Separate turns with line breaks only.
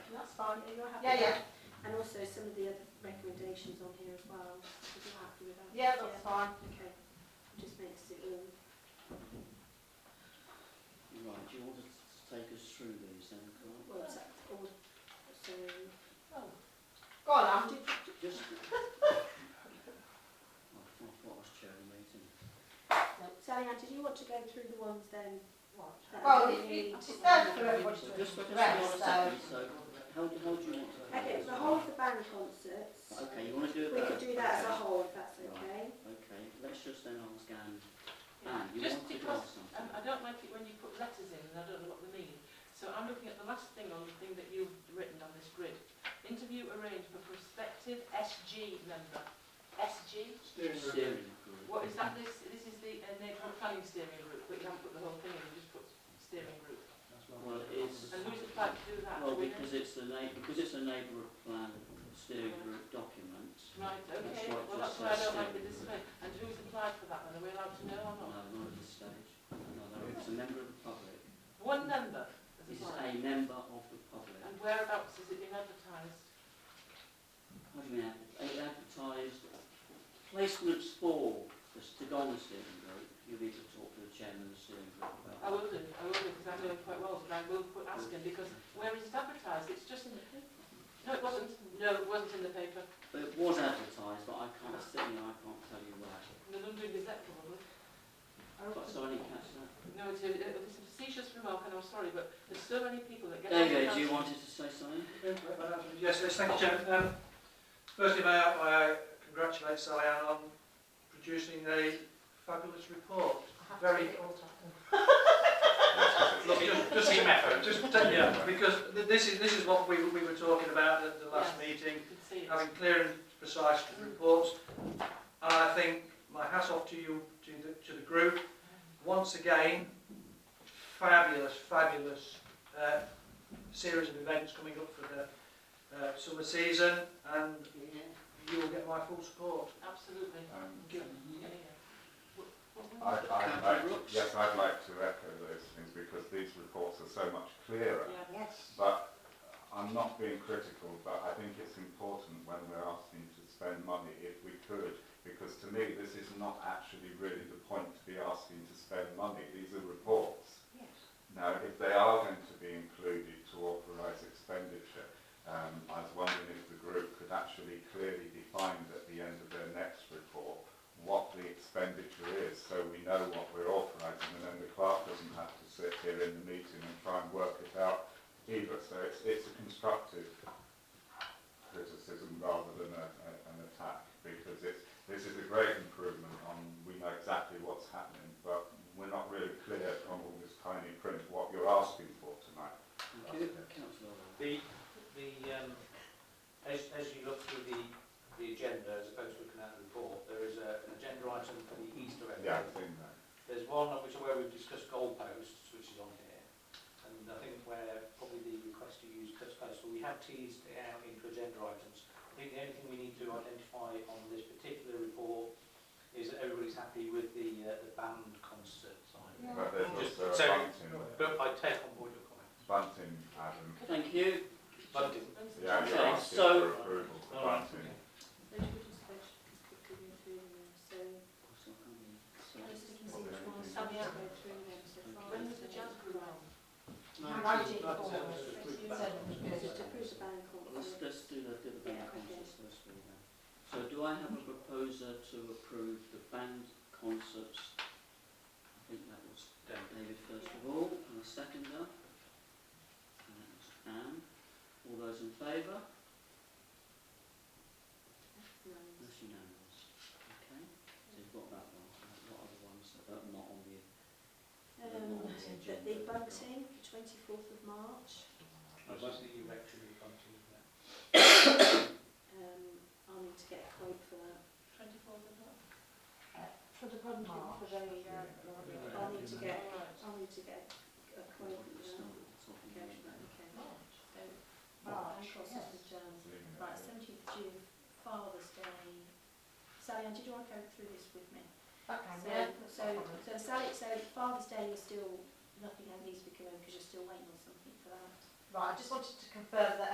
fine, are you happy?
Yeah,
with
yeah,
that? And also some of the other recommendations on here as well, if you're happy with that.
yeah, that's fine.
Okay, just makes it all,
Right, do you want to take us through these then, Carl?
well, it's all, so,
Go on, Andy.
Just... I thought I was chair of the meeting.
Sally Ann, did you want to go through the ones then? that
Well,
we
it-
need?
it- it's there for everybody
Just,
to
just hold on a
address, so.
second, so, how, do- how do you want to...
Okay, the whole of the band concerts,
Okay, you want to do it
we could
that?
do that as a whole, if that's
Right.
okay.
Okay, let's just then ask Anne.
Yeah.
Anne, ah, you
Just
want to
because
ask something?
um, I don't like it when you put letters in and I don't know what they mean. So I'm looking at the last thing on the thing that you've written on this grid. Interview arranged for prospective SG member. SG?
Steering group.
What is that? This this is the uh, neighbourhood planning steering group, but you haven't put the whole thing in, you just put steering group.
Well, it is...
And who's applied to do that?
Well,
Do we know?
because it's a neigh- because it's a neighbourhood plan steering group document.
Right, okay.
That's right,
Well,
just
that's why I don't
that
like the
steering
display. And who's applied for that? And are we allowed to know or
Oh.
No,
not?
uh, not at this stage. No, no, it's a member of the public.
One member has
It's
applied.
a member of the public.
And whereabouts has it been advertised?
What do you mean, ad- ad- advertised placements for the Stigona steering group? You need to talk to the chairman of the steering group about
I
that.
will do, I will do, because I know quite well, but I will put, ask him, because where is it advertised? It's just in the paper. No, it wasn't, no, it wasn't in the paper,
But it was advertised, but I can't see, I can't tell you where.
in the London Gazette probably.
But so I didn't catch that.
No, it's a, it was a facetious remark, and I'm sorry, but there's so many people that get...
David, you
advertised-
wanted to say something?
Yes, yes, thank you, Chairman. Um, firstly, may I, may I congratulate Sally Ann on producing a fabulous report.
I have to
Very-
get it all done.
Look, just, just,
Team effort.
just take- yeah, because th- this is, this is what we, we were talking about at the last meeting,
You can see it.
having clear and precise reports. And I think my hat's off to you, to the, to the group. Once again, fabulous, fabulous uh, series of events coming up for the uh, summer season and you will get my full support.
Absolutely.
Um,
Yeah, yeah. What- what-
I,
what-
I'd
Councillor
like,
Brooks?
yes, I'd like to echo those things because these reports are so much clearer.
Yeah.
Yes.
But I'm not being critical, but I think it's important when we're asking to spend money if we could, because to me this is not actually really the point to be asking to spend money. These are reports. Now, if they are going to be included to authorise expenditure, um, I was wondering if the group could actually clearly define at the end of their next report what the expenditure is, so we know what we're authorising, and then the clerk doesn't have to sit here in the meeting and try and work it out either. So it's, it's a constructive criticism rather than a, a, an attack, because it's, this is a great improvement on, we know exactly what's happening, but we're not really clear from all this tiny print what you're asking for tonight.
Thank you. Councillor Orr.
The, the, um, as, as you look through the, the agenda, as opposed to looking at the report, there is a, an agenda item for the Easter egg.
Yeah, I've seen that.
There's one of which where we've discussed goalposts, which is on here. And I think where probably the request to use goalposts, we have teased it out into agenda items. I think the only thing we need to identify on this particular report is that everybody's happy with the, uh, the band concert side.
Yeah.
But there's
Just-
also a
so-
bunting,
But I take on board your comment.
bunting Adam.
Thank you.
Bunting.
Yeah, you're
Okay,
asking
so-
for approval for
All right,
bunting.
Those were just questions we could go through them, so,
So, I mean, so-
I just can see which ones we
Sally
should
Ann.
go through them, so far.
When was the jazz group on?
Write it
That's
all.
it,
You
that's it.
said it was
Just
good.
to prove the band
Let's,
concert.
let's do the, do the band
Yeah, okay.
concerts first of all then. So do I have a proposer to approve the band concerts? I think that was
David.
David first of all, and a seconder. And that was Anne. All those in favour?
No.
That's unanimous. Okay, so you've got that one. What are the ones that are not on the, that are
Um,
not on the
the
agenda?
big bunting, the twenty-fourth of March,
Which is the erectory bunting.
um, I'll need to get a quote for that.
24th of March?
For the bundle, for the, uh,
I'll need to get,
All right.
I'll need to get a
We've
quote
got to
for that.
start at the top of the
Okay,
agenda.
okay.
March.
So,
March,
band concerts
yes.
with jazz.
Leaving it
Right,
there.
seventeenth of June, Father's Day. Sally Ann, did you want to go through this with me?
That
So,
can, yeah.
so, so Sally, so Father's Day, you're still, nothing has needs to be because you're still waiting on something for that.
Right, I just wanted to confirm that